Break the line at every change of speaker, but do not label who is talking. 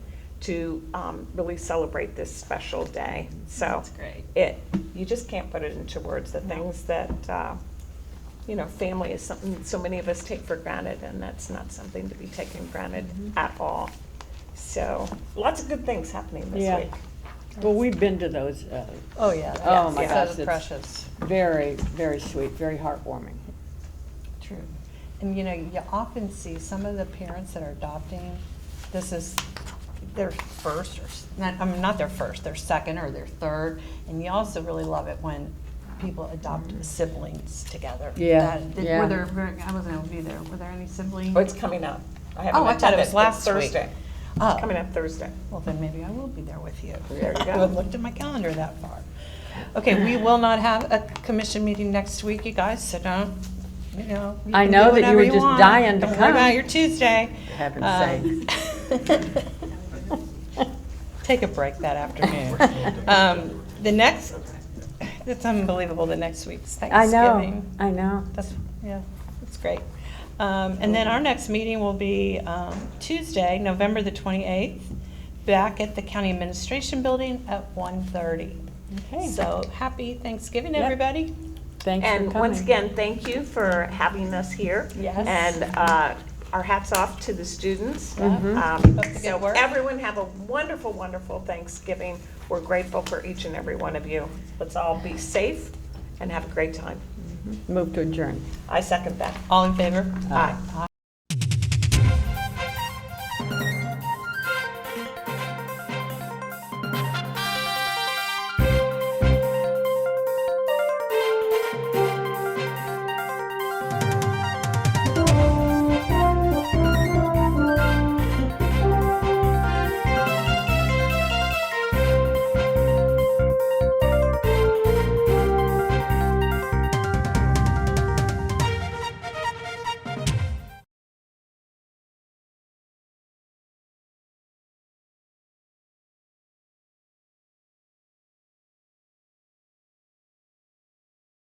to um, really celebrate this special day. So
That's great.
it, you just can't put it into words, the things that, uh, you know, family is something so many of us take for granted, and that's not something to be taken granted
Mm-hmm.
Mhm.
at all. So lots of good things happening this
Yeah.
week.
Well, we've been to those, uh,
Oh, yeah.
Oh,
that's-
my
yeah.
gosh,
So
it's-
precious.
very, very sweet, very heartwarming.
True. And you know, you often see some of the parents that are adopting, this is their first or, s- not, I mean, not their first, their second or their third. And you also really love it when people adopt
Mm-hmm.
siblings together.
Yeah,
That- did-
yeah.
Were there, were- I wasn't able to be there, were there any siblings?
Oh, it's coming up. I haven't
Oh, I thought it
attended.
was
It's
last week.
Thursday.
Oh.
Coming up Thursday.
Well, then maybe I will be there with you.
There you go.
I haven't looked at my calendar that far. Okay, we will not have a commission meeting next week, you guys, so don't, you know. you
I
can
know
do
that you
whatever
were just
want.
dying to
Don't worry about
come.
your Tuesday.
Heaven's
Um, Take a break that afternoon. Um, The next, it's unbelievable, the next week's
Uh, I
Thanksgiving.
know, I know.
That's, yeah, that's great. Um, And then our next meeting will be um, Tuesday, November the 28th, back at the County Administration Building at 1:30.
Okay.
So happy Thanksgiving,
Yep.
everybody.
Thanks for
And once
coming.
again, thank you for having us here.
Yes.
And uh, our hats off to the students.
Mhm.
Um,
Hope you get
So
work.
everyone have a wonderful, wonderful Thanksgiving. We're grateful for each and every one of you. Let's all be safe and have a great time.
Move to adjourn.
I second that.
All in favor?
Aye.
Aye.